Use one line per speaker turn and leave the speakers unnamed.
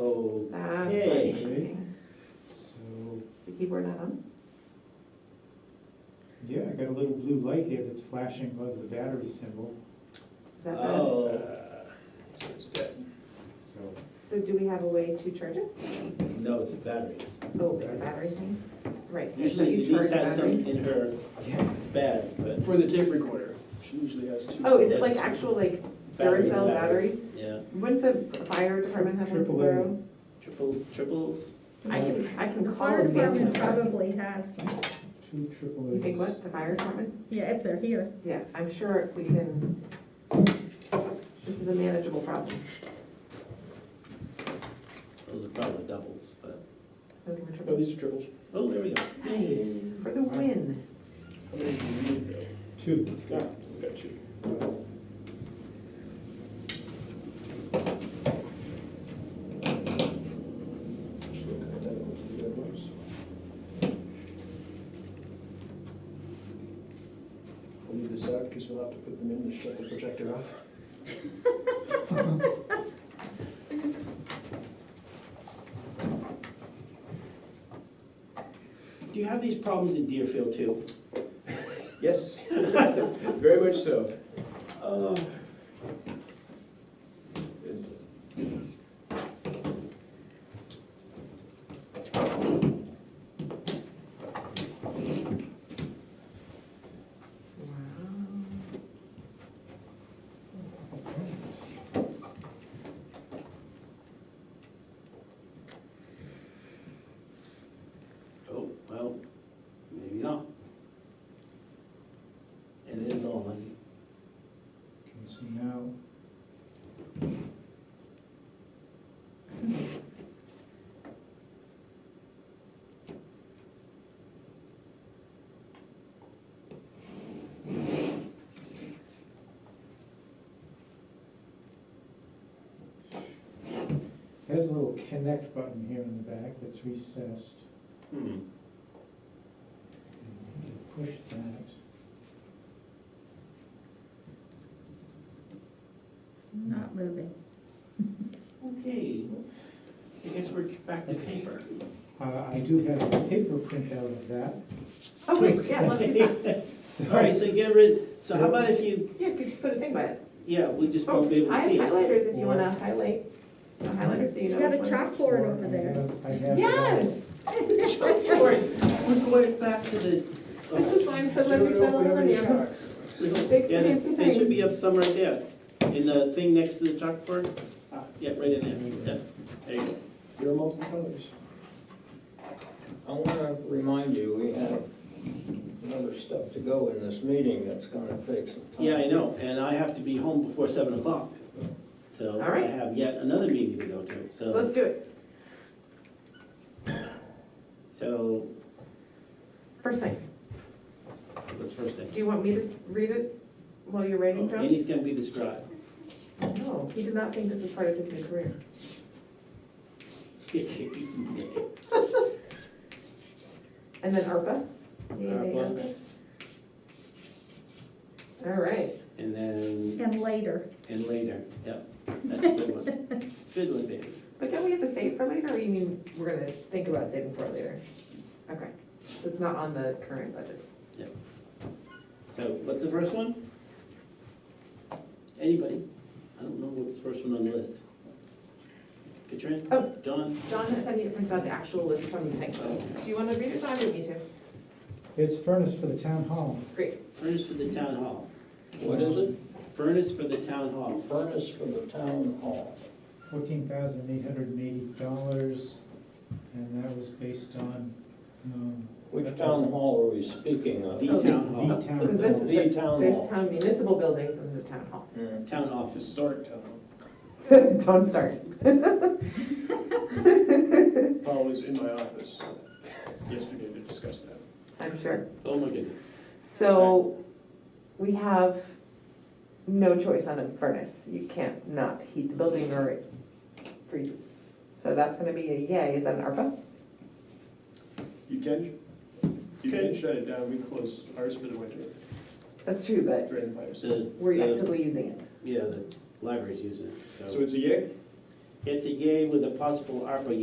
Uh, or not.
Yeah, I got a little blue light here that's flashing above the battery symbol,
Is that bad?
Oh. So it's dead.
so.
So do we have a way to charge it?
uh, No, it's batteries.
Oh, it's a battery thing? Right. but
Usually
you charge
Denise has
the
some
battery.
in her bag, but.
For the tape recorder, she usually has two.
Oh, is it like actual like
batteries,
Duracell batteries?
Yeah,
Wouldn't the fire department have one to
Triple A.
borrow?
triple, triples.
I can, I can
The
call and
fire department
family.
probably has,
Two triple A's.
You think what, the fire department?
yeah, if they're here.
Yeah, I'm sure we can, this is a manageable problem.
Those are probably doubles, but,
Those are
Oh,
triple-
these are triples.
oh, there we go.
Nice, for the win.
How many do you need though?
Two.
Ah, we got two. Just looking at that, what the other ones. I'll leave this out because we'll have to put them in to shut the projector off.
Do you have these problems in Deerfield too?
Yes, very much so.
Oh,
Wow.
oh, well, maybe not. And it is on.
Okay, so now, there's a little connect button here in the back that's recessed.
Hmm.
Push that.
Not moving.
Okay, I guess we're back to paper.
Uh, I do have a paper printout of that.
Oh, wait, yeah, let's do that.
All right, so get rid, so how about if you,
Yeah, you could just put a thing by it.
yeah, we just
Oh,
won't be able
I
to
have
see it.
highlighters if you want to highlight, a highlighter so you
You
know
got a
which one.
chalkboard over there.
I have- I have-
Yes! Chalkboard.
Oh, We're going back to the, uh,
This is why I'm so glad we spent all the money on this.
we don't-
Big
yeah, this-
fancy
they should
thing.
be up somewhere right there, in the thing next to the chalkboard.
Oh.
Ah, Yeah, right in there, yeah, there you go.
There are multiple colors.
I want to remind you, we have another step to go in this meeting that's going to take some time.
Yeah, I know, and I have to be home before seven o'clock. So
All
I
right.
have yet another meeting to go to,
So let's
so,
do it.
so,
First thing,
what's first thing? Oh,
do you want me to read it while you're writing, Josh?
Andy's gonna be the scribe.
No, he did not think this was part of his new career. And then ARPA? Yay,
ARPA.
ARPA. All right,
And then,
And later.
and later, yep, that's a good one. Good one, baby.
but don't we have to save for later, or you mean we're gonna think about saving for it later? Okay, so it's not on the current budget.
So what's the first one? Anybody? I don't know what's the first one on the list. Katrin?
Oh.
John?
John has sent me to print out the actual list from the bank. Do you wanna read it, John, or me too?
It's furnace for the town hall.
Great.
Furnace for the town hall.
What is it?
Furnace for the town hall.
Furnace for the town hall.
fourteen thousand eight hundred and eighty dollars, and that was based on, um.
Which town hall are we speaking of?
The
Oh, the-
town
The
hall.
Because
town,
this
hall.
is,
The
the-
town
there's
hall.
town municipal buildings and the town hall.
Hmm.
Town office.
Historic town.
Don't start.
Paul was in my office yesterday to discuss that.
I'm sure.
Oh my goodness.
So we have no choice on a furnace. You can't not heat the building or it freezes. So that's gonna be a yay. Is that an ARPA?
You can, you can shut it down, we close ours for the winter
That's true, but
during the fire season.
The,
we're
the-
actively using it.
yeah, the library's using it,
So
so.
it's a yay?
It's a yay with a possible ARPA